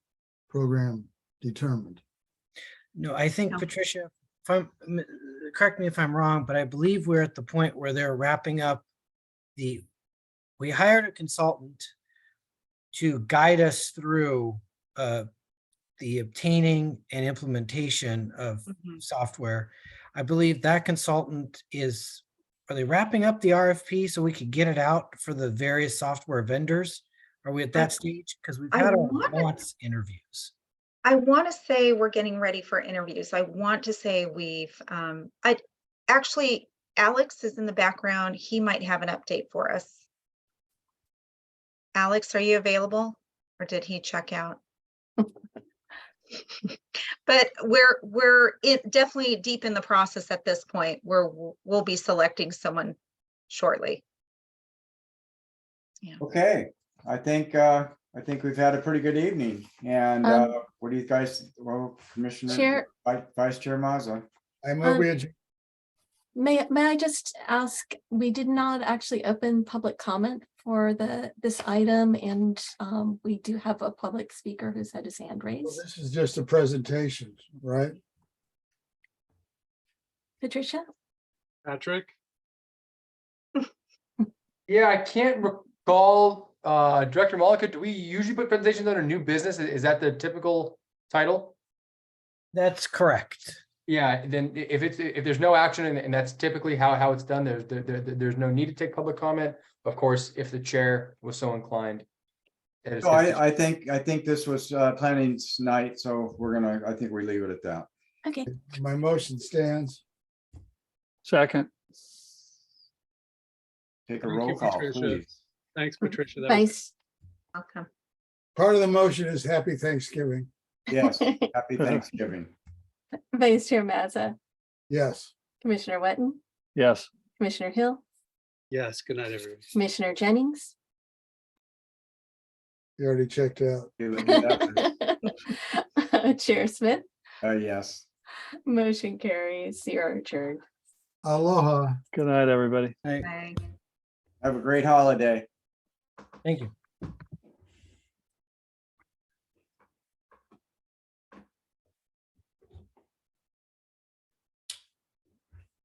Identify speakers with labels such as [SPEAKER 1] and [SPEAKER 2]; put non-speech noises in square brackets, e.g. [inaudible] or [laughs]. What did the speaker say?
[SPEAKER 1] program determined.
[SPEAKER 2] No, I think
[SPEAKER 3] No.
[SPEAKER 2] Patricia, if I'm, m- correct me if I'm wrong, but I believe we're at the point where they're wrapping up the, we hired a consultant to guide us through uh, the obtaining and implementation of
[SPEAKER 3] Mhm.
[SPEAKER 2] software. I believe that consultant is, are they wrapping up the RFP so we could get it out for the various software vendors? Are we at that stage? Because we've
[SPEAKER 3] I
[SPEAKER 2] had our
[SPEAKER 3] wanna-
[SPEAKER 2] wants interviews.
[SPEAKER 3] I want to say we're getting ready for interviews. I want to say we've, um, I, actually, Alex is in the background. He might have an update for us. Alex, are you available? Or did he check out? [laughs] But we're, we're it definitely deep in the process at this point where w- we'll be selecting someone shortly.
[SPEAKER 4] Okay, I think, uh, I think we've had a pretty good evening and,
[SPEAKER 5] Um,
[SPEAKER 4] uh, what do you guys, well, Commissioner,
[SPEAKER 5] Chair-
[SPEAKER 4] Vi- Vice Chair Mazza?
[SPEAKER 1] I move we
[SPEAKER 5] Um,
[SPEAKER 1] adjourn.
[SPEAKER 5] May, may I just ask, we did not actually open public comment for the, this item and um, we do have a public speaker who's had his hand
[SPEAKER 1] Well,
[SPEAKER 5] raised.
[SPEAKER 1] This is just a presentation, right?
[SPEAKER 5] Patricia?
[SPEAKER 6] Patrick?
[SPEAKER 7] Yeah, I can't recall, uh, Director Malika, do we usually put presentations under new business? I- Is that the typical title?
[SPEAKER 2] That's correct.
[SPEAKER 7] Yeah, then i- if it's, if there's no action and, and that's typically how, how it's done, there's, there, there, there's no need to take public comment. Of course, if the chair was so inclined. That is-
[SPEAKER 4] So I, I think, I think this was, uh, planning's night, so we're gonna, I think we leave it at that.
[SPEAKER 5] Okay,
[SPEAKER 1] My motion stands.
[SPEAKER 6] Second.
[SPEAKER 4] Take a
[SPEAKER 6] Thank you,
[SPEAKER 4] roll call,
[SPEAKER 6] Patricia.
[SPEAKER 4] please.
[SPEAKER 6] Thanks, Patricia. That was-
[SPEAKER 5] Vice,
[SPEAKER 3] Welcome.
[SPEAKER 1] Part of the motion is happy Thanksgiving.
[SPEAKER 4] Yes,
[SPEAKER 6] [laughs]
[SPEAKER 4] happy Thanksgiving.
[SPEAKER 5] [laughs] Vice Chair Mazza,
[SPEAKER 1] Yes.
[SPEAKER 5] Commissioner Wetton,
[SPEAKER 6] Yes.
[SPEAKER 5] Commissioner Hill,
[SPEAKER 6] Yes. Good night, everyone.
[SPEAKER 5] Commissioner Jennings.
[SPEAKER 1] You already checked out.
[SPEAKER 4] Do it, do
[SPEAKER 5] [laughs]
[SPEAKER 4] that.
[SPEAKER 5] Chair Smith,
[SPEAKER 4] Uh, yes.
[SPEAKER 5] motion carries, you're adjourned.
[SPEAKER 1] Aloha.
[SPEAKER 6] Good night, everybody.
[SPEAKER 2] I-
[SPEAKER 3] Bye.
[SPEAKER 4] Have a great holiday.
[SPEAKER 2] Thank you.